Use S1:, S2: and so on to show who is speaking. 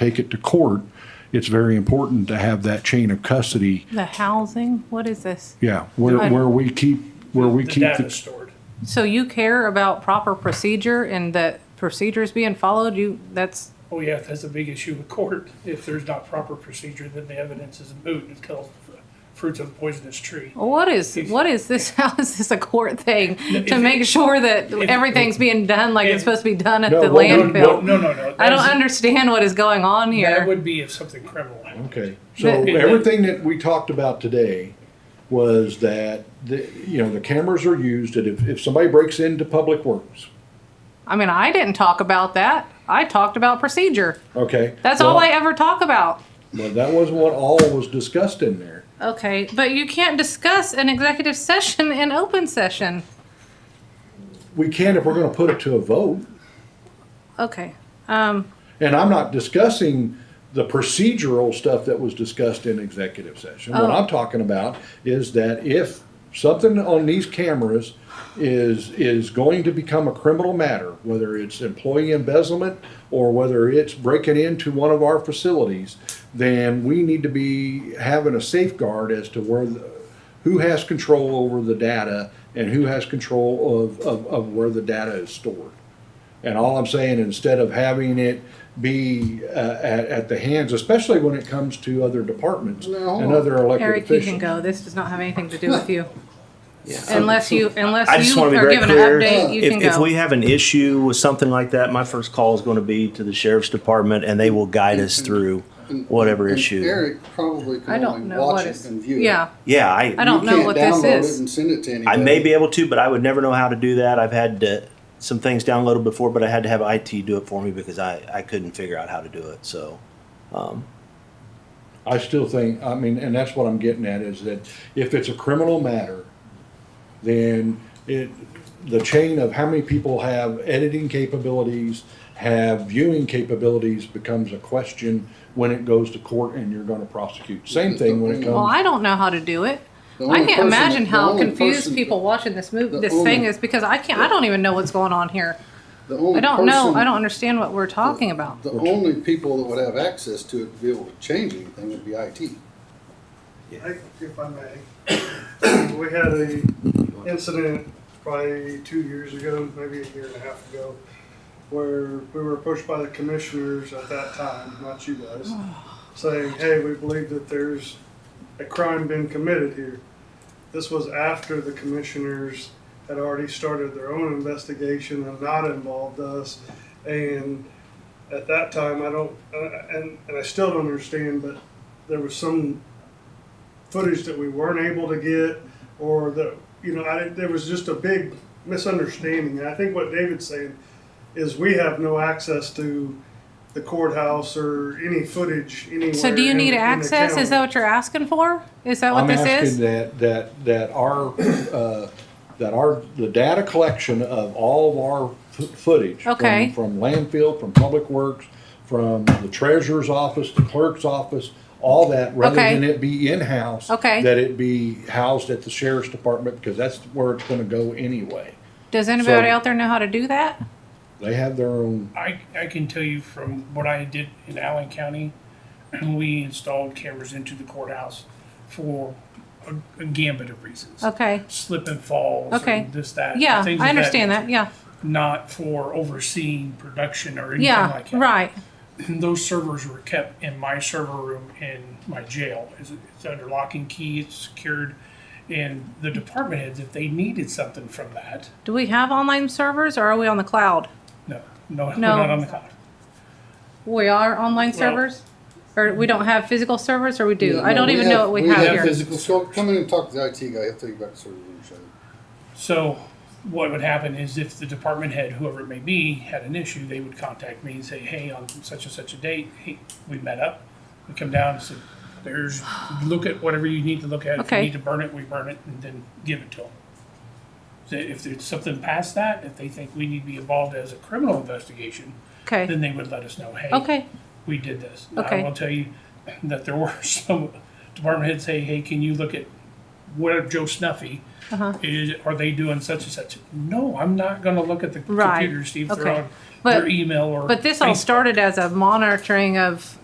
S1: take it to court, it's very important to have that chain of custody.
S2: The housing, what is this?
S1: Yeah, where,
S2: I-
S1: where we keep, where we
S3: The
S1: keep,
S3: data
S1: the-
S3: stored.
S2: So you care about proper procedure and that procedure is being followed? You, that's,
S3: Oh, yeah, that's a big issue with court. If there's not proper procedure, then the evidence is moot until fruits of the poisonous tree.
S2: what is, what is this? How is this a court thing? To
S3: if-
S2: make sure that everything's being done like it's
S3: if-
S2: supposed to be done at
S1: No,
S2: the
S1: well, no,
S3: No,
S2: landfill?
S3: no, no, no.
S2: I don't
S3: that's-
S2: understand what is going on
S3: That
S2: here.
S3: would be if something criminal happened.
S1: okay. So
S2: The-
S1: everything that we talked about today was that, the, you know, the cameras are used, and if, if somebody breaks into Public Works,
S2: I mean, I didn't talk about that. I talked about procedure.
S1: okay?
S2: That's all I
S1: well-
S2: ever talk about.
S1: Well, that wasn't what all was discussed in there.
S2: Okay, but you can't discuss an executive session in open session.
S1: We can if we're gonna put it to a vote.
S2: Okay, um,
S1: And I'm not discussing the procedural stuff that was discussed in executive session. What
S2: Oh.
S1: I'm talking about is that if something on these cameras is, is going to become a criminal matter, whether it's employee embezzlement or whether it's breaking into one of our facilities, then we need to be having a safeguard as to where, the- who has control over the data and who has control of, of, of where the data is stored. And all I'm saying, instead of having it be uh, at, at the hands, especially when it comes to other departments
S4: Now, hold
S1: and
S4: on.
S1: other elected
S2: Eric, you can
S1: officials.
S2: go. This does not have anything to do with you.
S4: Yeah.
S2: Unless you, unless
S5: I just
S2: you
S5: want to be
S2: are
S5: very
S2: given an
S5: clear.
S2: update, you can
S5: If, if we
S2: go.
S5: have an issue with something like that, my first call is going to be to the sheriff's department and they will guide us through whatever
S4: Mm-hmm. And
S5: issue.
S4: Eric probably
S2: I
S4: can
S2: don't
S4: only
S2: know what
S4: watch it
S2: is,
S4: and view it.
S2: yeah,
S5: Yeah,
S2: I
S5: I,
S2: don't know what this
S4: You can't download it
S2: is.
S4: and send it to
S5: I
S4: anybody.
S5: may be able to, but I would never know how to do that. I've had uh some things downloaded before, but I had to have IT do it for me because I, I couldn't figure out how to do it. So,
S1: I still think, I mean, and that's what I'm getting at, is that if it's a criminal matter, then it, the chain of how many people have editing capabilities, have viewing capabilities becomes a question when it goes to court and you're gonna prosecute. Same thing when it
S2: Well,
S1: comes,
S2: I don't know how to do it.
S4: The
S2: I
S4: only
S2: can't
S4: person-
S2: imagine
S4: the
S2: how
S4: only
S2: confused
S4: person-
S2: people watching this movie,
S4: the
S2: this
S4: only-
S2: thing is because I can't, I don't even know what's going on here.
S4: The only
S2: I don't know,
S4: person-
S2: I don't understand what we're talking about.
S4: The only people that would have access to it to be able to change anything would be IT.
S6: I- If I may, we had a incident probably two years ago, maybe a year and a half ago, where we were approached by the commissioners at that time, not you guys, saying, hey, we believe that there's a crime been committed here. This was after the commissioners had already started their own investigation and not involved us. And at that time, I don't, uh, and, and I still don't understand, but there was some footage that we weren't able to get, or that, you know, I, there was just a big misunderstanding. And I think what David's saying is we have no access to the courthouse or any footage anywhere.
S2: So do you
S6: in-
S2: need
S6: in the
S2: access? Is
S6: county.
S2: that what you're asking for? Is that what
S1: I'm
S2: this
S1: asking
S2: is?
S1: that, that, that our, uh, that our, the data collection of all of our fo- footage. from-
S2: Okay.
S1: From landfill, from public works, from the treasurer's office, the clerk's office, all that, rather
S2: Okay.
S1: than it be in-house.
S2: Okay.
S1: That it be housed at the sheriff's department, because that's where it's gonna go anyway.
S2: Does anybody
S1: So-
S2: out there know how to do that?
S1: They have their own,
S3: I, I can tell you from what I did in Allen County, we installed cameras into the courthouse for a, a gambit of reasons.
S2: Okay,
S3: Slip and falls.
S2: Okay.
S3: And this, that.
S2: yeah,
S3: things of
S2: I understand that,
S3: nature.
S2: yeah,
S3: Not for overseeing production or anything
S2: yeah,
S3: like that.
S2: right.
S3: And those servers were kept in my server room in my jail. It's, it's under lock and key, it's secured. And the department heads, if they needed something from that,
S2: Do we have online servers or are we on the cloud?
S3: no, no, we're
S2: No.
S3: not on the cloud.
S2: We are online servers? Or we don't have physical servers or we do? I don't even know what we have here.
S4: physical. So come in and talk to the IT guy, he'll tell you about the server room show.
S3: So what would happen is if the department head, whoever it may be, had an issue, they would contact me and say, hey, on such and such a date, hey, we met up. We come down and say, there's, look at whatever you need to look at. If you
S2: Okay.
S3: need to burn it, we burn it and then give it to them. So if there's something past that, if they think we need to be involved as a criminal investigation,
S2: Okay,
S3: then they would let us know, hey,
S2: okay,
S3: we did this.
S2: Okay.
S3: I will tell you that there were some department heads say, hey, can you look at what Joe Snuffy
S2: Uh-huh.
S3: is, are they doing such and such? No, I'm not gonna look at the
S2: Right,
S3: computer, see if they're
S2: okay.
S3: on
S2: But-
S3: their email or.
S2: But this all
S3: Facebook.
S2: started as a monitoring of